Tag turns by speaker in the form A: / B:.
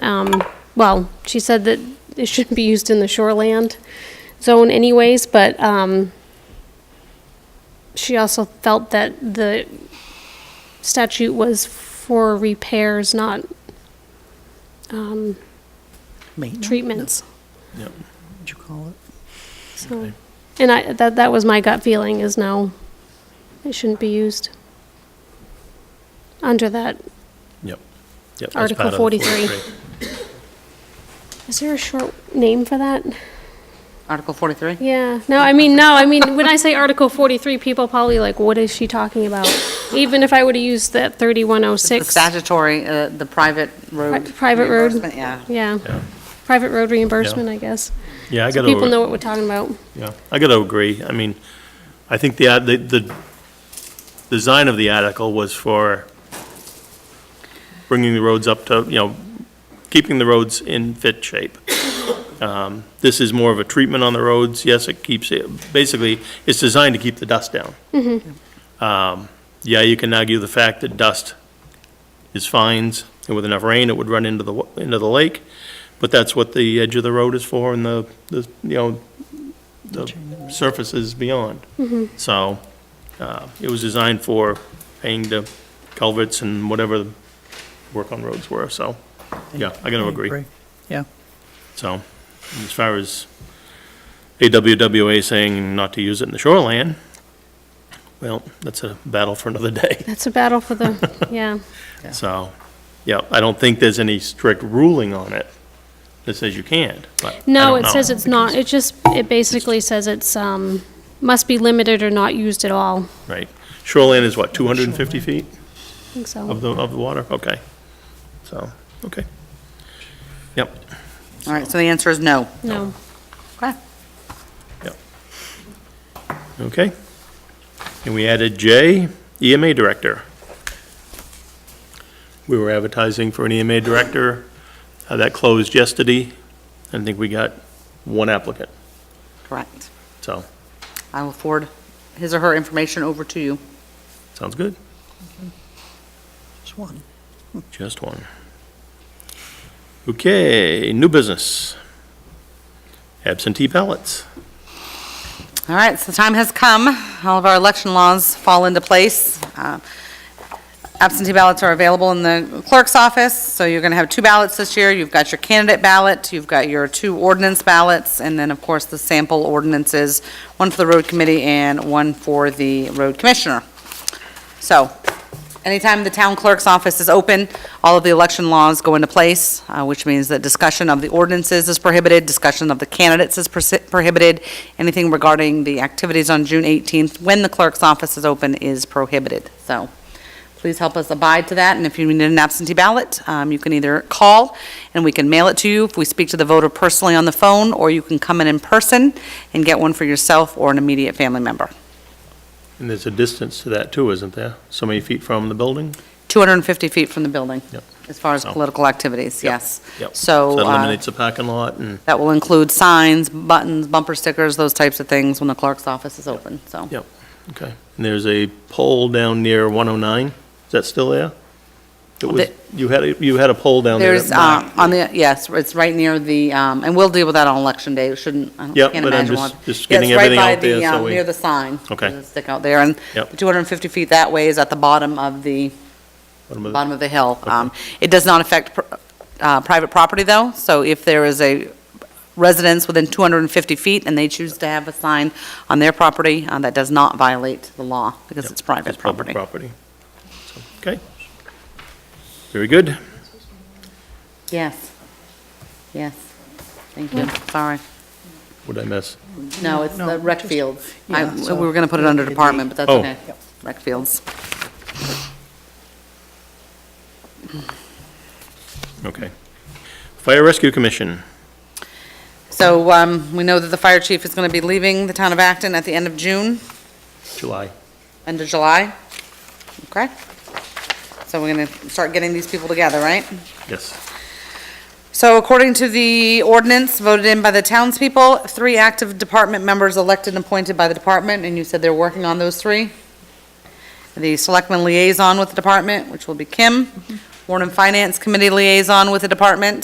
A: Um, well, she said that it shouldn't be used in the shoreland zone anyways, but, um, she also felt that the statute was for repairs, not, um,
B: Maintenance?
A: treatments,
C: Yep.
B: What'd you call it?
A: so.
C: Okay.
A: And I, that, that was my gut feeling is no, it shouldn't be used under that.
C: Yep. Yep. that's
A: Article
C: part of the
A: 43. Is there a short name for that?
D: Article 43?
A: Yeah, no, I mean, no, I mean, when I say Article 43, people probably like, what is she talking about? Even if I were to use that
D: The
A: 3106,
D: statutory, uh, the private road.
A: Pri- private road.
D: reimbursement, Yeah.
A: yeah,
C: Yeah.
A: private road reimbursement, I guess.
C: Yeah, I
A: So
C: gotta.
A: people know what we're talking about.
C: Yeah, I gotta agree. I mean, I think the, ad- the, the design of the article was for bringing the roads up to, you know, keeping the roads in fit shape. Um, This is more of a treatment on the roads. Yes, it keeps, it basically, it's designed to keep the dust down. Um, Yeah, you can argue the fact that dust is fines, and with enough rain, it would run into the, wa- into the lake, but that's what the edge of the road is for, and the, the, you know, the surfaces beyond. So, uh, it was designed for paying the culverts and whatever the work on roads were, so, yeah, I gotta agree.
B: Yeah,
C: So, and as far as AWWA saying not to use it in the shoreline, well, that's a battle for another day,
A: That's a battle for the, yeah,
C: so, yeah, I don't think there's any strict ruling on it that says you can't, but I
A: no,
C: don't
A: it
C: know.
A: says it's not, it just, it basically says it's, um, must be limited or not used at all,
C: Right, shoreline is what, 250 feet?
A: I think so.
C: Of the, of the water, okay. So, okay. Yep,
D: All right, so the answer is no.
A: No,
D: Okay.
C: yep. Okay. And we added J, EMA Director. We were advertising for an EMA Director. Uh, That closed yesterday. I think we got one applicant,
D: Correct.
C: so,
D: I will forward his or her information over to you.
C: sounds good.
B: just one.
C: Just one. Okay, new business. Absentee ballots.
D: All right, so the time has come. All of our election laws fall into place. Uh, Absentee ballots are available in the clerk's office, so you're going to have two ballots this year. You've got your candidate ballot, you've got your two ordinance ballots, and then, of course, the sample ordinances, one for the road committee and one for the road commissioner. So, anytime the town clerk's office is open, all of the election laws go into place, uh, which means that discussion of the ordinances is prohibited, discussion of the candidates is persi- prohibited, anything regarding the activities on June 18th, when the clerk's office is open, is prohibited. So, please help us abide to that, and if you need an absentee ballot, um, you can either call, and we can mail it to you if we speak to the voter personally on the phone, or you can come in in person and get one for yourself or an immediate family member.
C: And there's a distance to that too, isn't there? So many feet from the building?
D: 250 feet from the building.
C: Yep.
D: As far as
C: So-
D: political activities, yes.
C: Yep.
D: So
C: That
D: uh,
C: eliminates the parking lot and,
D: that will include signs, buttons, bumper stickers, those types of things when the clerk's office is open, so.
C: yep, okay. And there's a pole down near 109, is that still there? It was,
D: The-
C: you had, a- you had a pole down there.
D: There's,
C: that blocked-
D: uh, on the, yes, it's right near the, um, and we'll deal with that on election day, it shouldn't, I don't-
C: Yep,
D: can't
C: but I'm
D: imagine
C: just-
D: why.
C: just
D: Yeah,
C: getting
D: it's right
C: everything
D: by
C: out there,
D: the,
C: so
D: um,
C: we-
D: Near the sign.
C: Okay.
D: There's a Stick out there, and
C: Yep.
D: the 250 feet that way is at the bottom of the,
C: bottom of the-
D: bottom of the hill. Um, It does not affect pr- uh, private property, though, so if there is a residence within 250 feet and they choose to have a sign on their property, uh, that does not violate the law, because
C: Yep,
D: it's private property.
C: Public property. So, Okay. Very good.
D: Yes, yes. Thank you, sorry.
C: What'd I miss?
D: No, it's
B: No,
D: the rec
B: just-
D: fields. I-
B: yeah,
D: We
B: so-
D: were going to put it under department, but that's
C: Oh.
D: okay. Rec fields.
C: Okay. Fire Rescue Commission,
D: So um, we know that the fire chief is going to be leaving the town of Acton at the end of June.
C: July.
D: End of July? Okay. So we're going to start getting these people together, right?
C: Yes.
D: So according to the ordinance voted in by the townspeople, three active department members elected and appointed by the department, and you said they're working on those three? The selectman liaison with the department, which will be Kim, Warren and Finance Committee liaison with the department,